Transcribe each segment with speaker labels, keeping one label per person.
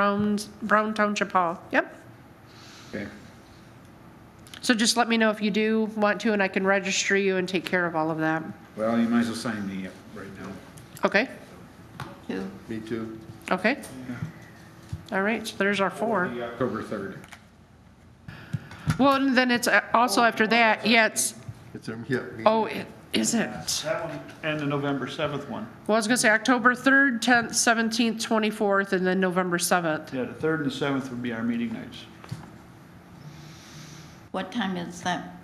Speaker 1: Brown's, Brown Township Hall. Yep.
Speaker 2: Okay.
Speaker 1: So just let me know if you do want to, and I can register you and take care of all of that.
Speaker 2: Well, you might as well sign me up right now.
Speaker 1: Okay?
Speaker 3: Me too.
Speaker 1: Okay? All right, so there's our four.
Speaker 2: The October 3rd.
Speaker 1: Well, and then it's uh, also after that, yeah, it's,
Speaker 3: It's, um, yeah. me-
Speaker 1: oh, it is it?
Speaker 4: That one and the November 7th one.
Speaker 1: Well, I was gonna say October 3rd, 10th, 17th, 24th, and then November 7th.
Speaker 4: Yeah, the 3rd and the 7th would be our meeting nights.
Speaker 5: What time is that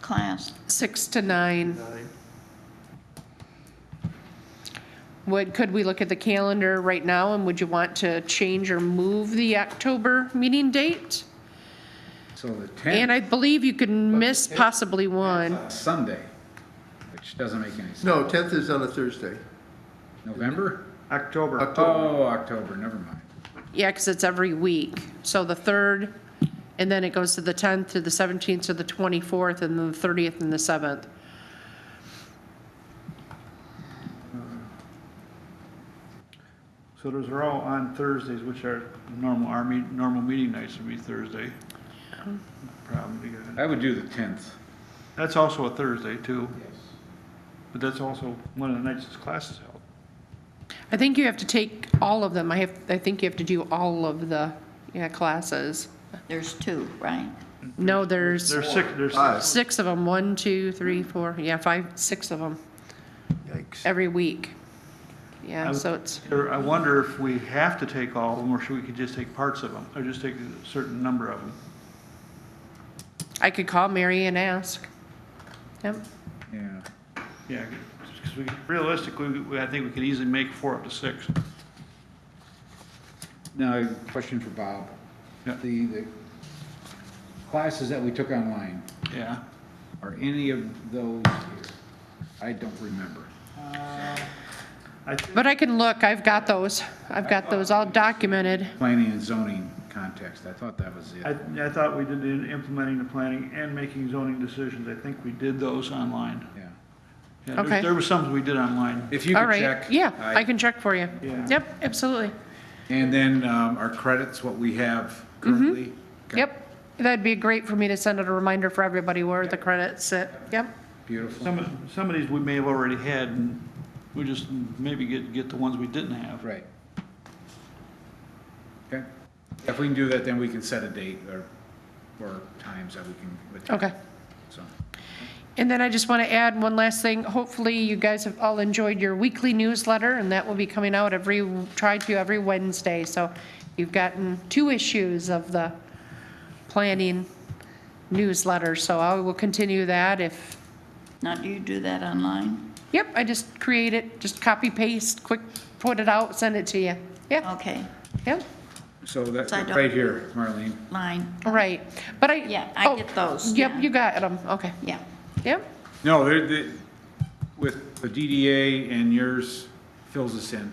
Speaker 5: class?
Speaker 1: 6 to 9. Would, could we look at the calendar right now, and would you want to change or move the October meeting date?
Speaker 2: So the
Speaker 1: And
Speaker 2: 10th,
Speaker 1: I believe you could miss possibly one.
Speaker 2: is Sunday, which doesn't make any sense.
Speaker 3: No, 10th is on a Thursday.
Speaker 2: November?
Speaker 4: October,
Speaker 3: October.
Speaker 2: Oh, October, never mind.
Speaker 1: Yeah, because it's every week. So the 3rd, and then it goes to the 10th, to the 17th, to the 24th, and then the 30th and the 7th.
Speaker 4: so those are all on Thursdays, which are normal, our me- normal meeting nights would be Thursday. Probably good.
Speaker 2: I would do the 10th.
Speaker 4: That's also a Thursday too, but that's also one of the nights this class is held.
Speaker 1: I think you have to take all of them. I have, I think you have to do all of the, yeah, classes.
Speaker 5: There's two, right?
Speaker 1: No, there's
Speaker 4: There's six, there's
Speaker 3: Five.
Speaker 4: six.
Speaker 1: six of them. One, two, three, four, yeah, five, six of them
Speaker 3: Yikes.
Speaker 1: every week. Yeah,
Speaker 4: I'm-
Speaker 1: so it's,
Speaker 4: Or I wonder if we have to take all of them, or should we could just take parts of them, or just take a certain number of them?
Speaker 1: I could call Mary and ask. Yep.
Speaker 2: Yeah.
Speaker 4: Yeah, because we, realistically, we- I think we could easily make four up to six.
Speaker 2: Now, I have a question for Bob.
Speaker 4: Yeah.
Speaker 2: The, the classes that we took online,
Speaker 4: Yeah.
Speaker 2: are any of those here? I don't remember.
Speaker 4: I think
Speaker 1: But I can look. I've got those. I've got those all documented.
Speaker 2: Planning and zoning context, I thought that was
Speaker 4: I,
Speaker 2: it.
Speaker 4: I thought we did in implementing the planning and making zoning decisions. I think we did those online.
Speaker 2: Yeah.
Speaker 4: Yeah, there-
Speaker 1: Okay.
Speaker 4: There were some we did online.
Speaker 2: If you
Speaker 1: All
Speaker 2: could
Speaker 1: right.
Speaker 2: check.
Speaker 1: Yeah, I can check for you.
Speaker 4: Yeah.
Speaker 1: Yep, absolutely.
Speaker 2: And then um, our credits, what we have currently. Okay,
Speaker 1: Mm-hmm. Yep. That'd be great for me to send out a reminder for everybody where the credits sit. Yep.
Speaker 2: Beautiful.
Speaker 4: Some, of- some of these we may have already had, and we just maybe get, get the ones we didn't have.
Speaker 2: Right. Okay. If we can do that, then we can set a date or, or times that we can. attend.
Speaker 1: Okay.
Speaker 2: So,
Speaker 1: And then I just want to add one last thing. Hopefully, you guys have all enjoyed your weekly newsletter, and that will be coming out every, tried to every Wednesday. So you've gotten two issues of the planning newsletter, so I will continue that if,
Speaker 5: Now, do you do that online?
Speaker 1: yep, I just create it, just copy paste, quick, put it out, send it to you. Yeah,
Speaker 5: Okay,
Speaker 1: yeah,
Speaker 2: so that,
Speaker 5: So I don't-
Speaker 2: right here, Marlene.
Speaker 5: line,
Speaker 1: right. But I.
Speaker 5: Yeah, I
Speaker 1: oh,
Speaker 5: get those,
Speaker 1: Yep,
Speaker 5: yeah.
Speaker 1: you got them, okay,
Speaker 5: yeah.
Speaker 1: yep.
Speaker 2: No, they're, they, with the DDA and yours fills us in.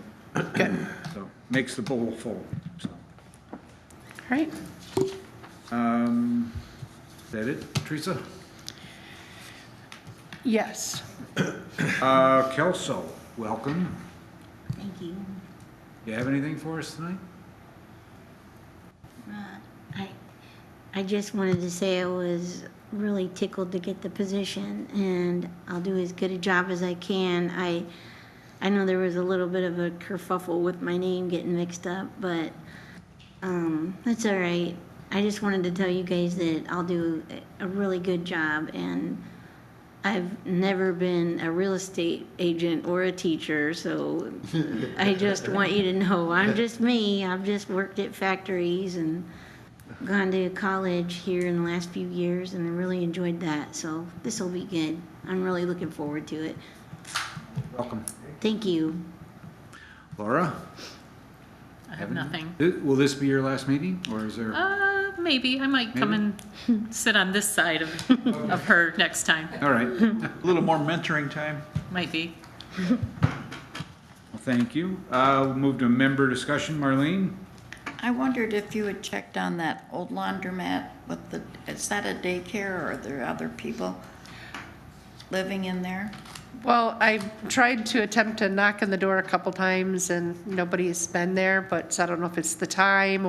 Speaker 2: So, makes the bowl full, so.
Speaker 1: All right,
Speaker 2: Um, is that it, Teresa?
Speaker 1: yes.
Speaker 2: Uh, Kelso, welcome.
Speaker 6: Thank you.
Speaker 2: You have anything for us tonight?
Speaker 6: Uh, I, I just wanted to say I was really tickled to get the position, and I'll do as good a job as I can. I, I know there was a little bit of a kerfuffle with my name getting mixed up, but um, that's all right. I just wanted to tell you guys that I'll do a a really good job, and I've never been a real estate agent or a teacher, so I just want you to know, I'm just me. I've just worked at factories and gone to college here in the last few years and I really enjoyed that. So this will be good. I'm really looking forward to it.
Speaker 2: Welcome.
Speaker 6: Thank you.
Speaker 2: Laura?
Speaker 7: I have nothing.
Speaker 2: Th- Will this be your last meeting, or is there?
Speaker 7: Uh, maybe, I might come and sit on this side of, of her next time,
Speaker 2: All right, well,
Speaker 4: A little more mentoring time.
Speaker 7: might be.
Speaker 2: thank you. Uh, we'll move to member discussion, Marlene?
Speaker 5: I wondered if you had checked on that old laundromat with the, is that a daycare or are there other people living in there?
Speaker 1: Well, I tried to attempt to knock on the door a couple times and nobody's been there, but I don't know if it's the time